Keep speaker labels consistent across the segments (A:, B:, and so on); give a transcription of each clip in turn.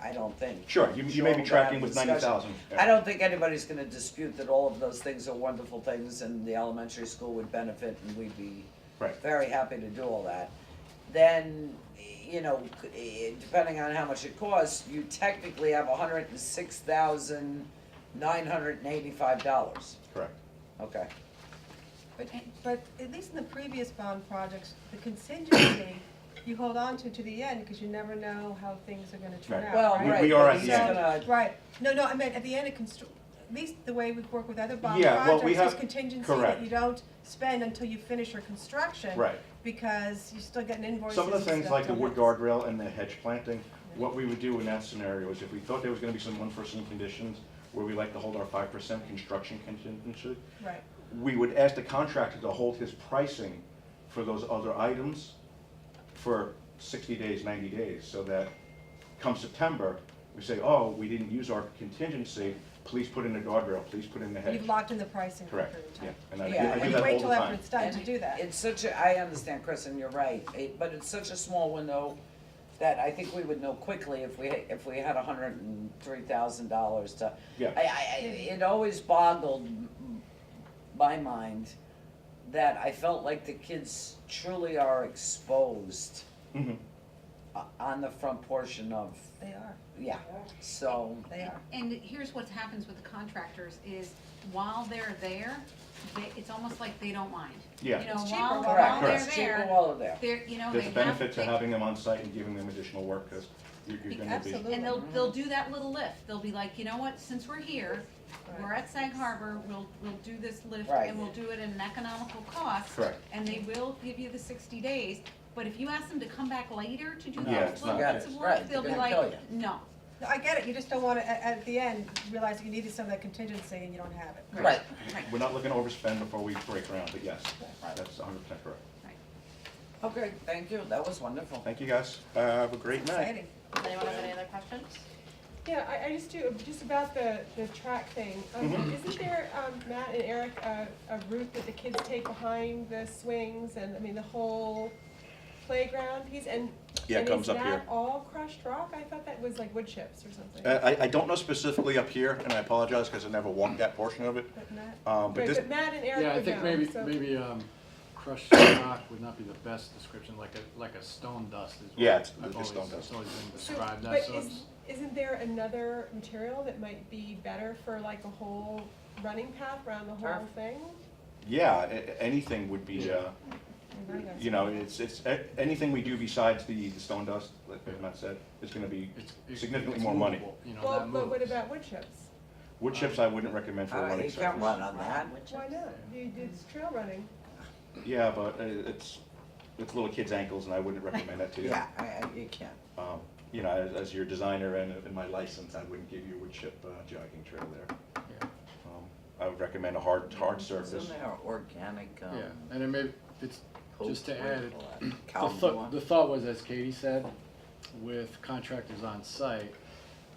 A: I don't think.
B: Sure, you, you may
A: Sure, we'll
B: be
A: have
B: tracking
A: a
B: with
A: discussion.
B: ninety thousand.
A: I don't think anybody's gonna dispute that all of those things are wonderful things and the elementary school would benefit and we'd be
B: Right.
A: very happy to do all that. Then, you know, c- eh, depending on how much it costs, you technically have hundred and six thousand nine hundred and eighty-five dollars,
B: Correct.
A: okay?
C: But at least in the previous bond projects, the contingency, you hold on to to the end, because you never know how things are gonna turn
B: Right.
C: out,
A: Well,
C: right?
B: We-
A: right.
B: we are
A: but
B: at
A: he's
B: the end.
A: gonna-
C: Right, no, no, I meant at the end of constru, at least the way we work with other bond
B: Yeah, well, we
C: projects, there's
B: have-
C: contingency
B: correct.
C: that you don't spend until you finish your construction.
B: Right.
C: Because you still get an invoice.
B: Some of the things like the wood guardrail and the hedge planting, what we would do in that scenario is if we thought there was gonna be some unforeseen conditions where we like to hold our five percent construction contingency,
C: Right,
B: we would ask the contractor to hold his pricing for those other items for sixty days, ninety days, so that come September, we say, oh, we didn't use our contingency, please put in a guardrail, please put in the hedge.
C: you've locked in the pricing for a
B: Correct,
C: period of time.
B: yeah, and I do-
A: Yeah,
B: I
A: and
B: do
C: And
B: that
C: you
B: all
C: wait
B: the
C: till after
B: time.
C: it's done to
A: And
C: do that.
A: It's such a, I understand, Chris, and you're right, it, but it's such a small window that I think we would know quickly if we, if we had a hundred and three thousand dollars to.
B: Yeah.
A: I, I, I- it always boggled m- my mind that I felt like the kids truly are exposed
B: Mhm.
A: o- on the front portion of,
C: They are,
A: yeah, so.
C: they are.
D: And here's what happens with the contractors is while they're there, they, it's almost like they don't mind.
B: Yeah.
D: You know,
C: It's cheaper
D: while,
C: while
B: they're
D: while they're
B: there.
A: It's cheaper
D: there,
A: while they're there.
D: they're, you know, they
B: There's a
D: have.
B: benefit to
D: they-
B: having them on site and giving them additional work, because you're, you're gonna be.
C: Absolutely.
D: And they'll, they'll do that little lift. They'll be like, you know what, since we're here, we're
C: Right.
D: at Sag Harbor, we'll, we'll do this lift
A: Right.
D: and we'll do it at an economical cost.
B: Correct.
D: And they will give you the sixty days, but if you ask them to come back later to do
B: No,
D: those
B: it's not
D: little
B: good.
D: bits
A: Right,
D: of
A: they're
D: work, they'll be
A: gonna
D: like,
A: kill you.
D: no.
C: No, I get it, you just don't wanna, at, at the end, realize that you needed some of that contingency and you don't have it.
A: Right,
D: Right.
B: We're not looking to overspend before we break ground, but yes,
A: Right.
B: that's hundred percent correct.
A: okay, thank you, that was wonderful.
B: Thank you, guys. Have a great night.
C: Exciting.
E: Anyone have any other questions?
F: Yeah, I, I just do, just about the, the track thing, um,
B: Mhm.
F: isn't there, um, Matt and Eric, a, a route that the kids take behind the swings and, I mean, the whole playground piece, and,
B: Yeah, it
F: and
B: comes
F: is
B: up here.
F: that all crushed rock? I thought that was like wood chips or something.
B: Uh, I, I don't know specifically up here, and I apologize, because I never walked that portion of it,
F: But Matt,
B: um, but
F: right,
B: this,
F: but Matt and Eric
G: Yeah, I
F: would
G: think
F: know,
G: maybe,
F: so-
G: maybe, um, crushed rock would not be the best description, like a, like a stone dust is what
B: Yeah, it's-
G: I've
B: it's
G: always-
B: stone dust.
G: It's always been
F: So,
G: described,
F: But
G: that's, so
F: is, isn't there another material that might be better for like a whole running path around the whole
A: Turf.
F: thing?
B: yeah, a- a- anything would be, uh, you know, it's, it's, a- anything we do besides the, the stone dust, like Matt said, is gonna be
G: it's- it's.
B: significantly
G: it's
B: more money.
G: movable, You know,
F: Well,
G: that
F: but what
G: moves.
F: about wood chips?
B: Wood chips I wouldn't recommend for a
A: Uh,
B: running
A: you can't run
B: surface.
A: on that.
F: Why not? You did trail running.
B: Yeah, but uh, it's, it's little kids' ankles, and I wouldn't recommend that to you.
A: Yeah, I, I, you can't.
B: Um, You know, as, as your designer and, and my license, I wouldn't give you a wood chip uh, jogging trail there.
G: Yeah.
B: Um, I would recommend a hard, hard surface.
A: Isn't there organic, um?
G: Yeah, and it may, it's, just to add, it- the
A: Cow manure.
G: thought, the thought was, as Katie said, with contractors on site,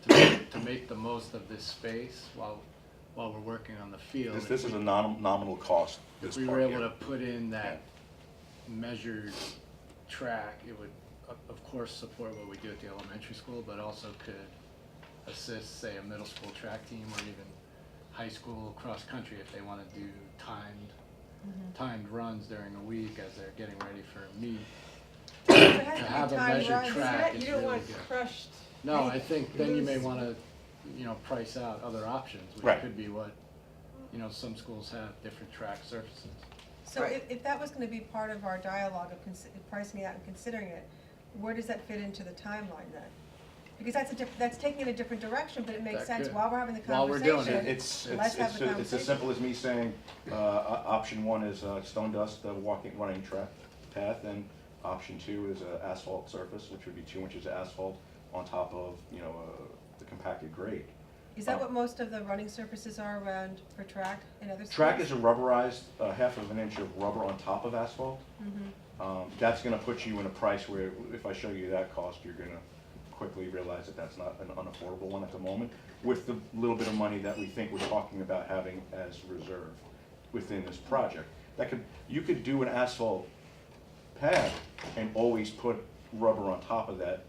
G: to make, to make the most of this space while, while we're working on the field.
B: This,
G: if
B: this
G: we
B: is a nom- nominal cost, this
G: If we were
B: part
G: able
B: here.
G: to put in that measured track, it would, of, of course, support what we do at the elementary school, but also could assist, say, a middle school track team or even high school cross-country if they wanna do timed, timed runs during the week as they're getting ready for a meet.
C: To
G: To have a measured track
F: Matt,
G: is
F: you don't
G: really
F: want
G: good.
F: crushed.
G: No, I think then you may
F: Loose.
G: wanna, you know, price out other options, which
B: Right.
G: could be what, you know, some schools have different track surfaces.
C: So
A: Right.
C: if, if that was gonna be part of our dialogue of consi- pricing it out and considering it, where does that fit into the timeline then? Because that's a diff, that's taking it a different direction, but it makes
G: That
C: sense
G: could-
C: while we're having the
G: while we're
C: conversation.
G: doing
B: It- It's,
C: Let's
B: it's,
C: have
B: it's,
C: the
B: a- it's as
C: conversation.
B: simple as me saying, uh, o- option one is uh, stone dust, the walking, running track path, and option two is a asphalt surface, which would be two inches of asphalt on top of, you know, uh, the compacted grade.
C: Is
G: uh,
C: that what most of the running surfaces are around for track and other sports?
B: Track is a rubberized, uh, half of an inch of rubber on top of asphalt. Um, that's gonna put you in a price where, if I show you that cost, you're gonna quickly realize that that's not an unaffordable one at the moment, with the little bit of money that we think we're talking about having as reserve within this project. That could, you could do an asphalt pad and always put rubber on top of that